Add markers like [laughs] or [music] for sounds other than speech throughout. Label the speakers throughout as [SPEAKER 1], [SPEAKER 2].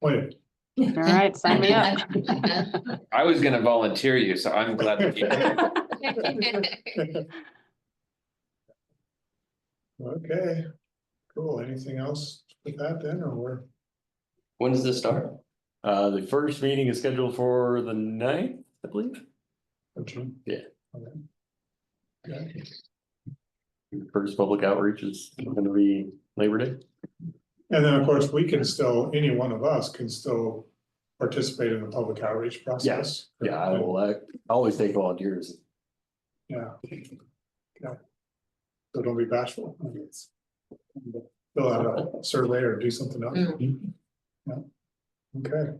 [SPEAKER 1] appointed.
[SPEAKER 2] All
[SPEAKER 3] [laughs]
[SPEAKER 2] right, sign me up.
[SPEAKER 4] [laughs] I was gonna volunteer you, so I'm glad that
[SPEAKER 5] [laughs]
[SPEAKER 4] you.
[SPEAKER 1] Okay, cool. Anything else with that then, or we're?
[SPEAKER 4] When does this start?
[SPEAKER 6] Uh, the first meeting is scheduled for the ninth, I believe.
[SPEAKER 1] or June?
[SPEAKER 6] Yeah.
[SPEAKER 1] Okay. Okay.
[SPEAKER 6] First public outreach is gonna be Labor Day.
[SPEAKER 1] And then, of course, we can still, any one of us can still participate in the public outreach process.
[SPEAKER 6] Yeah, I will, uh, I always take volunteers.
[SPEAKER 1] Yeah. Yeah. So don't be bashful. I mean, it's- Fill out a survey or do something else.
[SPEAKER 3] Mm.
[SPEAKER 1] Yeah. Okay.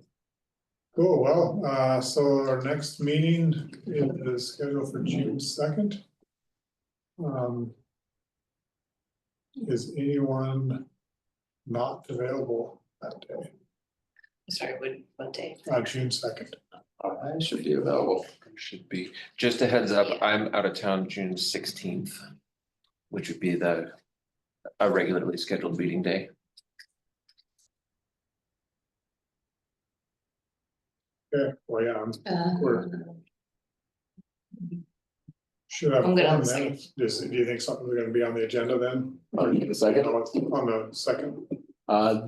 [SPEAKER 1] Cool, well, uh, so our next meeting is scheduled for June second. Um. Is anyone not available that day,
[SPEAKER 3] Sorry, what, what day?
[SPEAKER 1] uh, June second?
[SPEAKER 4] I should be available. Should be. Just a heads up, I'm out of town June sixteenth, which would be the a regularly scheduled meeting day.
[SPEAKER 1] Yeah, well, yeah, I'm-
[SPEAKER 3] Uh,
[SPEAKER 1] Where? should have.
[SPEAKER 3] I'm good on
[SPEAKER 1] one
[SPEAKER 3] the
[SPEAKER 1] then. Just, do you think something's gonna be on the agenda then?
[SPEAKER 6] On the second?
[SPEAKER 1] On the second,
[SPEAKER 6] Uh,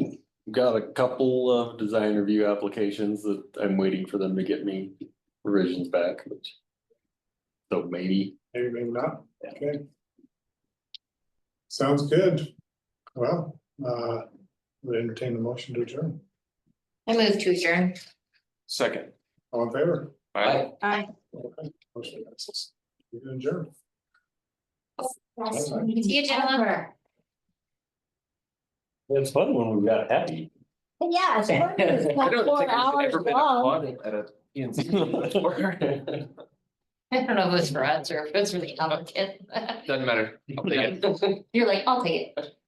[SPEAKER 6] got a couple of design review applications that I'm waiting for them to get me revisions back, which. So maybe,
[SPEAKER 1] maybe, maybe not, okay. Sounds good. Well, uh, we entertain the motion to adjourn.
[SPEAKER 3] I move to adjourn.
[SPEAKER 4] Second.
[SPEAKER 1] All in favor?
[SPEAKER 4] Bye.
[SPEAKER 2] Bye.
[SPEAKER 1] Okay, Motion passes. You can adjourn.
[SPEAKER 3] See you, gentlemen.
[SPEAKER 6] it's fun when we got happy.
[SPEAKER 5] Yeah, it's funny, it's
[SPEAKER 4] I
[SPEAKER 5] like
[SPEAKER 4] don't
[SPEAKER 5] four
[SPEAKER 4] think I've
[SPEAKER 5] hours
[SPEAKER 4] ever been
[SPEAKER 5] long.
[SPEAKER 4] applauded at a
[SPEAKER 5] [laughs]
[SPEAKER 4] PNC before. [laughs]
[SPEAKER 3] I don't know if it's for us or if it's for the applicant.
[SPEAKER 4] Doesn't matter. I'll take it.
[SPEAKER 5] [laughs]
[SPEAKER 3] You're like, I'll take it.